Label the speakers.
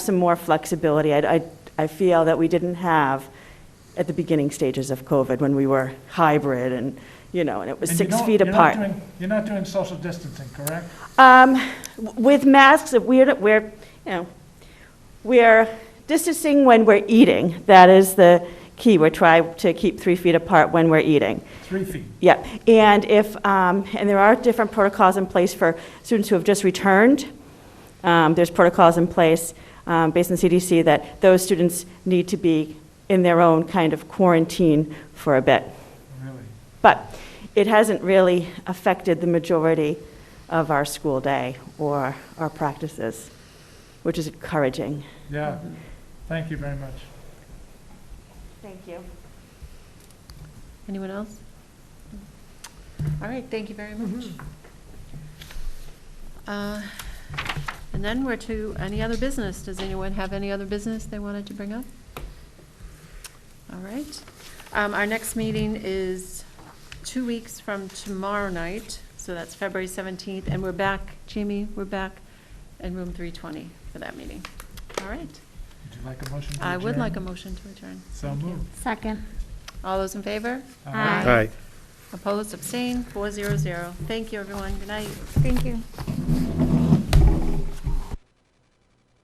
Speaker 1: some more flexibility. I, I- I feel that we didn't have at the beginning stages of COVID, when we were hybrid and, you know, and it was
Speaker 2: And you
Speaker 1: six
Speaker 2: don't-
Speaker 1: feet
Speaker 2: you're not
Speaker 1: apart.
Speaker 2: doing- You're not doing social distancing, correct?
Speaker 1: Um, w- With masks, if we're, we're, you know, we're distancing when we're eating. That is the key. We're trying to keep three feet apart when we're eating.
Speaker 2: Three feet.
Speaker 1: Yeah, and if, um, and there are different protocols in place for students who have just returned. Um, There's protocols in place um, based on CDC that those students need to be in their own kind of quarantine for a bit.
Speaker 2: Really?
Speaker 1: But it hasn't really affected the majority of our school day or our practices, which is encouraging.
Speaker 2: Yeah. Thank you very much.
Speaker 1: Thank you.
Speaker 3: Anyone else? All right, thank you very much. Uh, And then we're to any other business. Does anyone have any other business they wanted to bring up? All right. Um, Our next meeting is two weeks from tomorrow night, so that's February 17th, and we're back, Jamie, we're back in room 320 for that meeting. All right.
Speaker 2: Would you like a motion to adjourn?
Speaker 3: I would like a motion to adjourn.
Speaker 2: So
Speaker 3: Thank you.
Speaker 2: moved.
Speaker 4: Second.
Speaker 3: All those in favor?
Speaker 2: All
Speaker 4: Aye.
Speaker 2: right.
Speaker 5: All right.
Speaker 3: Opposed, abstained, four zero zero. Thank you, everyone. Good night.
Speaker 4: Thank you.